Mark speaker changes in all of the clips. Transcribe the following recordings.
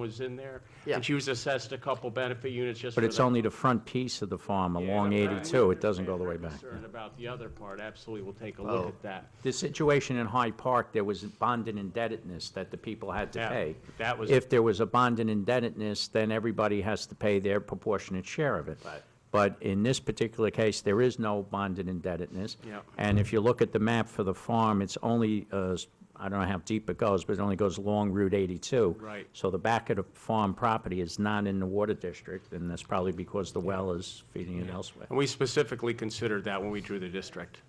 Speaker 1: was in there.
Speaker 2: Yeah.
Speaker 1: And she was assessed a couple benefit units just for
Speaker 3: But
Speaker 1: that.
Speaker 3: it's only the front piece of the farm
Speaker 1: Yeah,
Speaker 3: along
Speaker 1: but I
Speaker 3: 82, it
Speaker 1: understand
Speaker 3: doesn't go the
Speaker 1: your
Speaker 3: way back.
Speaker 1: Concern about the other part, absolutely, we'll take a look
Speaker 2: Oh.
Speaker 1: at that.
Speaker 3: The situation in Hyde Park, there was bond and indebtedness that the people had to
Speaker 1: Yeah,
Speaker 3: pay.
Speaker 1: that was-
Speaker 3: If there was a bond and indebtedness, then everybody has to pay their proportionate share of it.
Speaker 1: Right.
Speaker 3: But in this particular case, there is no bond and indebtedness.
Speaker 1: Yeah.
Speaker 3: And if you look at the map for the farm, it's only, uh, s- I don't know how deep it goes, but it only goes along Route 82.
Speaker 1: Right.
Speaker 3: So the back of the farm property is not in the water district, and that's probably because the well is feeding it elsewhere.
Speaker 1: And we specifically considered that when we drew the district.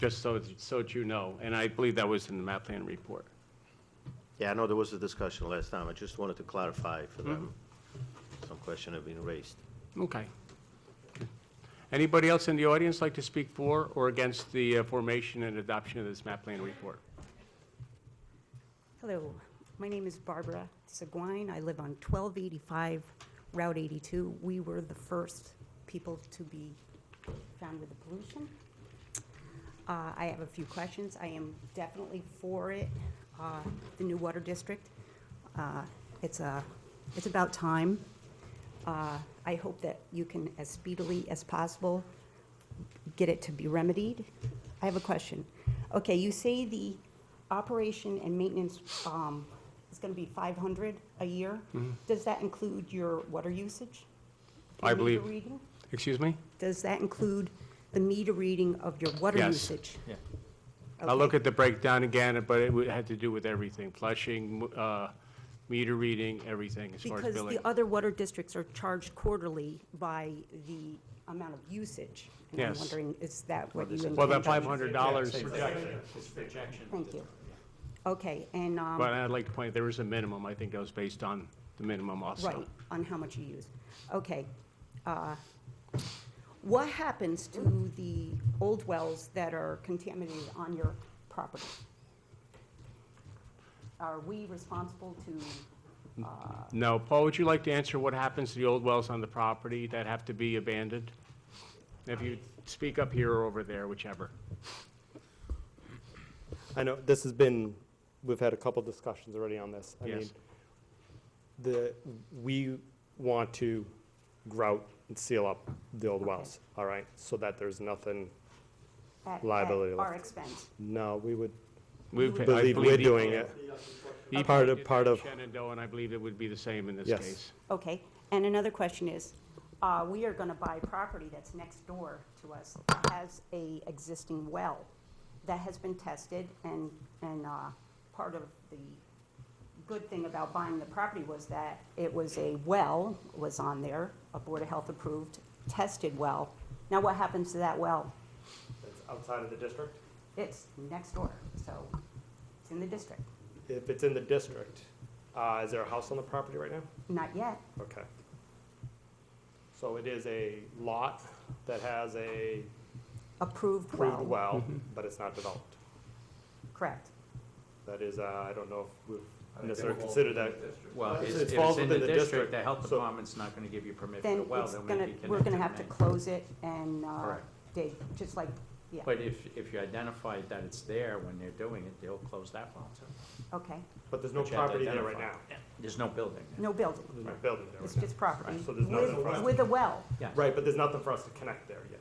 Speaker 1: Just so, so that you know, and I believe that was in the map plan report.
Speaker 2: Yeah, I know there was a discussion last time. I just wanted to clarify for them. Some question have been raised.
Speaker 1: Okay. Anybody else in the audience like to speak for or against the uh, formation and adoption of this map plan report?
Speaker 4: Hello, my name is Barbara Seguin. I live on 1285 Route 82. We were the first people to be found with the pollution. Uh, I have a few questions. I am definitely for it, uh, the new water district. Uh, It's a, it's about time. Uh, I hope that you can, as speedily as possible, get it to be remedied. I have a question. Okay, you say the operation and maintenance um, is going to be 500 a year. Does that include your water usage?
Speaker 1: Mm-hmm. I
Speaker 4: Your meter
Speaker 1: believe-
Speaker 4: reading?
Speaker 1: Excuse me?
Speaker 4: Does that include the meter reading of your water
Speaker 1: Yes.
Speaker 4: usage? Yes.
Speaker 1: I'll look at the breakdown again, but it would- had to do with everything, flushing, m- uh, meter reading, everything as far as
Speaker 4: Because
Speaker 1: billing.
Speaker 4: the other water districts are charged quarterly by the amount of usage. And I'm
Speaker 1: Yes.
Speaker 4: wondering, is that what you intend?
Speaker 1: Well, that $500 projection,
Speaker 4: Thank you. Okay, and, um,
Speaker 1: but I'd like to point, there is a minimum. I think that was based on the minimum also.
Speaker 4: right, on how much you use. Okay. uh, What happens to the old wells that are contaminated on your property? Are we responsible to
Speaker 1: No, Paul, would you like to answer what happens to the old wells on the property that have to be abandoned? If you speak up here or over there, whichever.
Speaker 5: I know, this has been, we've had a couple discussions already on this. I
Speaker 1: Yes.
Speaker 5: mean, The, we want to grout and seal up the old wells, all right? So that there's nothing,
Speaker 4: at-
Speaker 5: Liability
Speaker 4: At our
Speaker 5: left.
Speaker 4: expense.
Speaker 5: no, we would
Speaker 1: We I
Speaker 5: believe we're
Speaker 1: the-
Speaker 5: doing it.
Speaker 1: the-
Speaker 5: Part of- part of-
Speaker 1: Shenandoah, and I believe it would be the same in this
Speaker 5: Yes.
Speaker 1: case.
Speaker 4: Okay, and another question is, uh, we are gonna buy property that's next door to us, that has a existing well that has been tested, and, and, uh, part of the good thing about buying the property was that it was a well, was on there, a Board of Health approved, tested well. Now what happens to that well?
Speaker 5: It's outside of the district?
Speaker 4: It's next door, so it's in the district,
Speaker 5: If it's in the district, uh, is there a house on the property right now?
Speaker 4: not yet,
Speaker 5: Okay. So it is a lot that has a
Speaker 4: approved well.
Speaker 5: proved well,
Speaker 1: Mm-hmm.
Speaker 5: but it's not developed.
Speaker 4: Correct.
Speaker 5: That is, uh, I don't know if we've necessarily considered that.
Speaker 3: Well,
Speaker 5: It
Speaker 3: it's,
Speaker 5: falls
Speaker 3: if it's in
Speaker 5: within
Speaker 3: the
Speaker 5: the
Speaker 3: district,
Speaker 5: district,
Speaker 3: the health
Speaker 5: so-
Speaker 3: department's not gonna give you permit for the
Speaker 4: then
Speaker 3: well,
Speaker 4: it's
Speaker 3: then we
Speaker 4: gonna, we're gonna have to close it and, uh,
Speaker 3: Correct.
Speaker 4: dig, just like, yeah,
Speaker 3: But if, if you identify that it's there when they're doing it, they'll close that well too.
Speaker 4: okay.
Speaker 5: But there's no
Speaker 3: Which you have to
Speaker 5: property there right now.
Speaker 3: identify. There's no building there.
Speaker 4: No building,
Speaker 5: There's no building there
Speaker 4: it's
Speaker 5: right now.
Speaker 4: just property.
Speaker 5: So there's nothing for us
Speaker 4: With,
Speaker 5: to-
Speaker 4: with a well,
Speaker 3: Yes.
Speaker 5: Right, but there's nothing for us to connect there yet,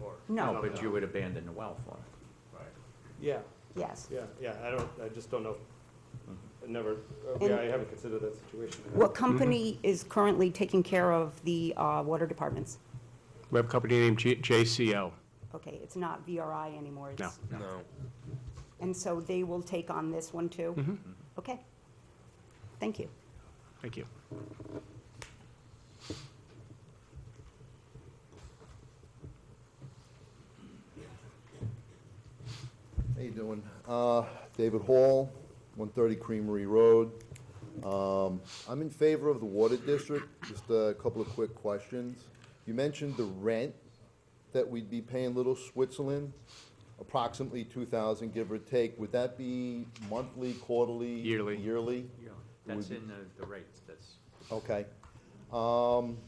Speaker 5: or.
Speaker 3: No,
Speaker 4: no,
Speaker 3: but you would abandon the well for it.
Speaker 5: Right. Yeah,
Speaker 4: yes.
Speaker 5: yeah, yeah, I don't, I just don't know, I
Speaker 3: Mm-hmm.
Speaker 5: never, uh,
Speaker 4: And-
Speaker 5: yeah, I haven't considered that situation.
Speaker 4: What company is currently taking care of the, uh, water departments?
Speaker 1: We have a company named G- JCO.
Speaker 4: Okay, it's not VRI anymore,
Speaker 1: No.
Speaker 4: it's. No. And so they will take on this one too?
Speaker 1: Mm-hmm.
Speaker 4: Okay, thank you.
Speaker 1: Thank you.
Speaker 6: How you doing? Uh, David Hall, 130 Creamery Road. Um, I'm in favor of the water district. Just a couple of quick questions. You mentioned the rent that we'd be paying Little Switzerland, approximately 2,000, give or take. Would that be monthly, quarterly?
Speaker 1: Yearly.
Speaker 6: Yearly?
Speaker 3: That's
Speaker 6: Would-
Speaker 3: in the, the rates, that's,
Speaker 6: Okay. Um,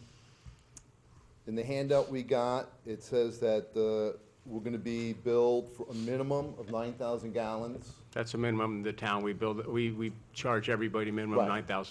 Speaker 6: In the handout we got, it says that the we're gonna be billed for a minimum of nine thousand gallons.
Speaker 1: That's a minimum in the town. We build, we, we charge everybody minimum
Speaker 6: Right.
Speaker 1: 9,000